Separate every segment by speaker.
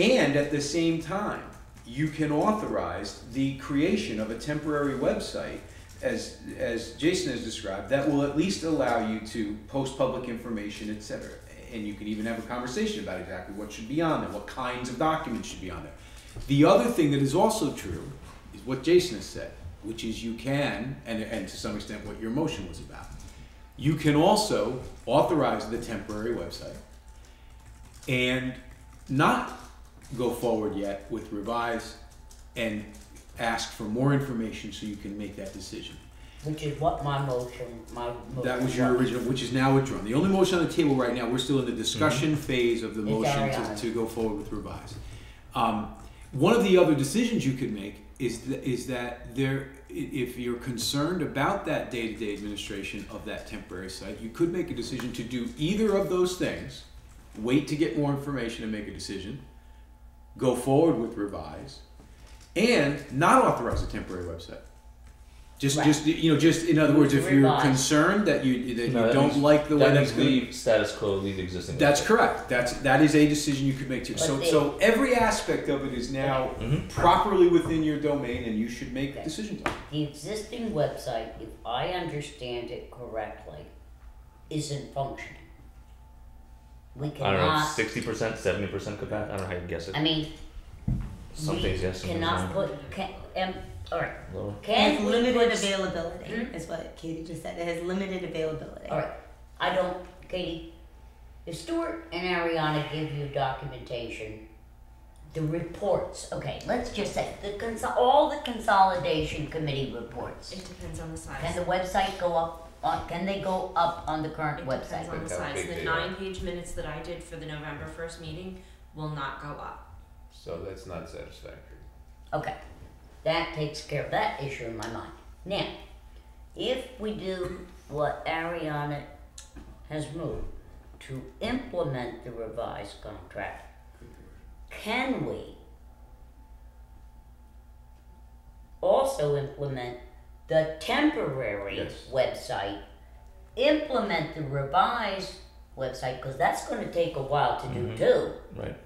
Speaker 1: And at the same time, you can authorize the creation of a temporary website, as, as Jason has described, that will at least allow you to post public information, et cetera. And you can even have a conversation about exactly what should be on there, what kinds of documents should be on there. The other thing that is also true is what Jason has said, which is you can, and, and to some extent what your motion was about, you can also authorize the temporary website and not go forward yet with revise and ask for more information so you can make that decision.
Speaker 2: Which is what my motion, my motion.
Speaker 1: That was your original, which is now withdrawn. The only motion on the table right now, we're still in the discussion phase of the
Speaker 2: Mm-hmm. It's
Speaker 1: motion to,
Speaker 2: Ariana.
Speaker 1: to go forward with revise. Um, one of the other decisions you could make is that, is that there, i- if you're concerned about that day-to-day administration of that temporary site, you could make a decision to do either of those things. Wait to get more information and make a decision. Go forward with revise, and not authorize a temporary website. Just,
Speaker 2: Right.
Speaker 1: just you know, just in other words, if you're
Speaker 2: Revise.
Speaker 1: concerned that you that
Speaker 3: No,
Speaker 1: you
Speaker 3: that
Speaker 1: don't
Speaker 3: means-
Speaker 1: like the way
Speaker 3: That
Speaker 1: that's
Speaker 3: means
Speaker 1: going.
Speaker 3: leave status quo, leave existing.
Speaker 1: That's correct. That's that is a decision you could make too.
Speaker 2: But
Speaker 1: So
Speaker 2: they-
Speaker 1: so every aspect of it is now
Speaker 3: Mhm.
Speaker 1: properly within your domain, and you should make
Speaker 2: Okay.
Speaker 1: decisions. on it.
Speaker 2: The existing website, if I understand it correctly, isn't functioning. We
Speaker 3: I don't know,
Speaker 2: cannot,
Speaker 3: sixty percent, seventy percent capacity. I don't know how you guess it.
Speaker 2: I mean,
Speaker 3: some
Speaker 2: we
Speaker 3: things yes, some things
Speaker 2: cannot
Speaker 3: no.
Speaker 2: put, can, um, alright,
Speaker 3: Lower.
Speaker 2: can
Speaker 4: has
Speaker 2: we put?
Speaker 4: limited
Speaker 2: s-
Speaker 4: availability,
Speaker 2: Hmm?
Speaker 4: is what Katie just said. It has limited availability.
Speaker 2: Alright, I don't, Katie, if Stuart and Ariana give you documentation, the reports, okay, let's just say, the consol, all the consolidation committee reports.
Speaker 5: It depends on the size.
Speaker 2: Can the website go up, on can they go up on the current
Speaker 5: it
Speaker 2: website?
Speaker 5: depends on the
Speaker 3: Depends how
Speaker 5: size.
Speaker 3: big
Speaker 5: The
Speaker 3: they are.
Speaker 5: nine page minutes that I did for the November first meeting will not go up.
Speaker 6: So that's not satisfactory.
Speaker 2: Okay, that takes care of that issue in my mind. Now, if we do what Ariana has moved to implement the revised contract, can we also implement the temporary
Speaker 6: Yes.
Speaker 2: website, implement the revised website, because that's going to take a while to do too?
Speaker 3: Right.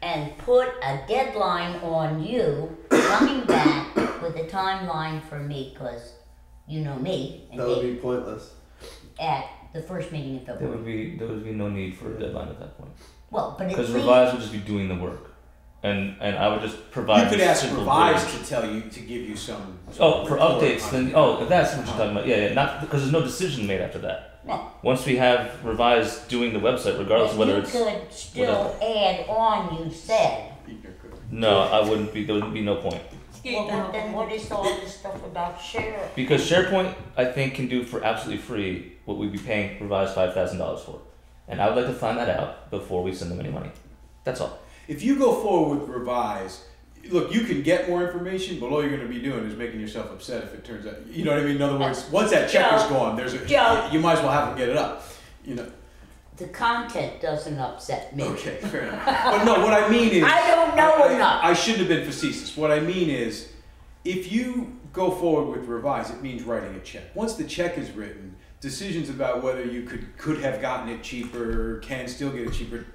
Speaker 2: and put a deadline on you coming back with a timeline for me, because you know me and
Speaker 7: That would
Speaker 2: Dave
Speaker 7: be pointless.
Speaker 2: at the first meeting in
Speaker 3: There
Speaker 2: February.
Speaker 3: would be there would be no need for a deadline at that point
Speaker 2: Well, but it's
Speaker 3: because revise would just be doing the work, and and I would just provide.
Speaker 1: You could
Speaker 3: this
Speaker 1: ask
Speaker 3: simple
Speaker 1: revise
Speaker 3: bridge.
Speaker 1: to tell you to give you some.
Speaker 3: Oh, for
Speaker 1: report
Speaker 3: updates,
Speaker 1: on it.
Speaker 3: then oh, if that's what you're talking about. Yeah, yeah. Not because there's no decision made after that.
Speaker 2: No.
Speaker 3: Once we have revised doing the website, regardless of whether
Speaker 2: you
Speaker 3: it's
Speaker 2: could still add on. You said.
Speaker 3: no, I wouldn't be. There would be no point.
Speaker 2: Well, but then what is all this stuff about share?
Speaker 3: Because SharePoint, I think, can do for absolutely free what we'd be paying Revise five thousand dollars for, and I would like to find that out before we send them any money. That's all.
Speaker 1: If you go forward with revise, look, you can get more information, but all you're going to be doing is making yourself upset if it turns out. You know what I mean? In other words, once that check is
Speaker 2: Joe.
Speaker 1: gone, there's a
Speaker 2: Joe.
Speaker 1: you might as well have them get it up. You know.
Speaker 2: The content doesn't upset me.
Speaker 1: Okay, fair enough. But no, what I mean is
Speaker 2: I don't know
Speaker 1: I- I-
Speaker 2: enough.
Speaker 1: I, shouldn't have been facetious. What I mean is, if you go forward with revise, it means writing a check. Once the check is written, decisions about whether you could could have gotten it cheaper, can still get it cheaper.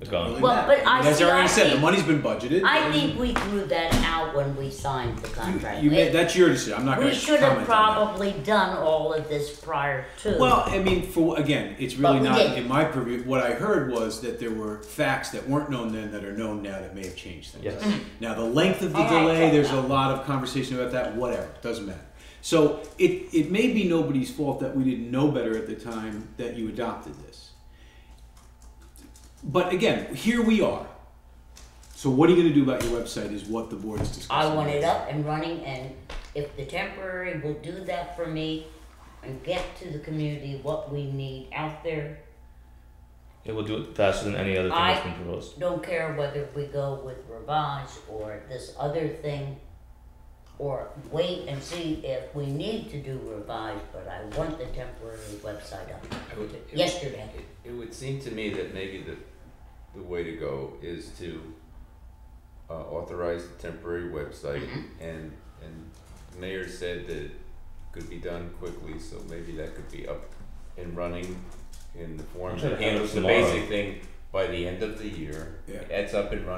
Speaker 3: It's
Speaker 1: don't
Speaker 3: gone.
Speaker 1: really
Speaker 2: Well,
Speaker 1: matter.
Speaker 2: but I
Speaker 1: as
Speaker 2: see,
Speaker 1: I already
Speaker 2: I
Speaker 1: said, the
Speaker 2: think-
Speaker 1: money's been budgeted.
Speaker 2: I think we threw that out when we signed the contract.
Speaker 1: you
Speaker 2: It-
Speaker 1: made, that's your decision. I'm not going
Speaker 2: we
Speaker 1: to
Speaker 2: should
Speaker 1: comment.
Speaker 2: have
Speaker 1: on that.
Speaker 2: probably done all of this prior to.
Speaker 1: Well, I mean, for again, it's really
Speaker 2: But we
Speaker 1: not
Speaker 2: did.
Speaker 1: in my purview. What I heard was that there were facts that weren't known then that are known now that may have changed things.
Speaker 3: Yes.
Speaker 1: Now, the length of the
Speaker 2: Mm-hmm. All right,
Speaker 1: delay,
Speaker 2: check
Speaker 1: there's
Speaker 2: that.
Speaker 1: a lot of conversation about that. Whatever, doesn't matter. So it it may be nobody's fault that we didn't know better at the time that you adopted this. But again, here we are. So what are you going to do about your website? Is what the board is discussing.
Speaker 2: I want it up and running, and if the temporary will do that for me and get to the community what we need out there,
Speaker 3: It will do it faster than any other thing
Speaker 2: I-
Speaker 3: that's been proposed.
Speaker 2: don't care whether we go with revise or this other thing, or wait and see if we need to do revise, but I want the temporary website up
Speaker 6: I would, it,
Speaker 2: yesterday.
Speaker 6: It, it would seem to me that maybe the, the way to go is to uh, authorize the temporary website and, and the mayor said that it could be done quickly, so maybe that could be up and running in the form
Speaker 3: I'm
Speaker 6: of
Speaker 3: sure they have it
Speaker 6: handles the
Speaker 3: tomorrow.
Speaker 6: basic thing by the end of the year.
Speaker 1: Yeah.
Speaker 6: It's up and running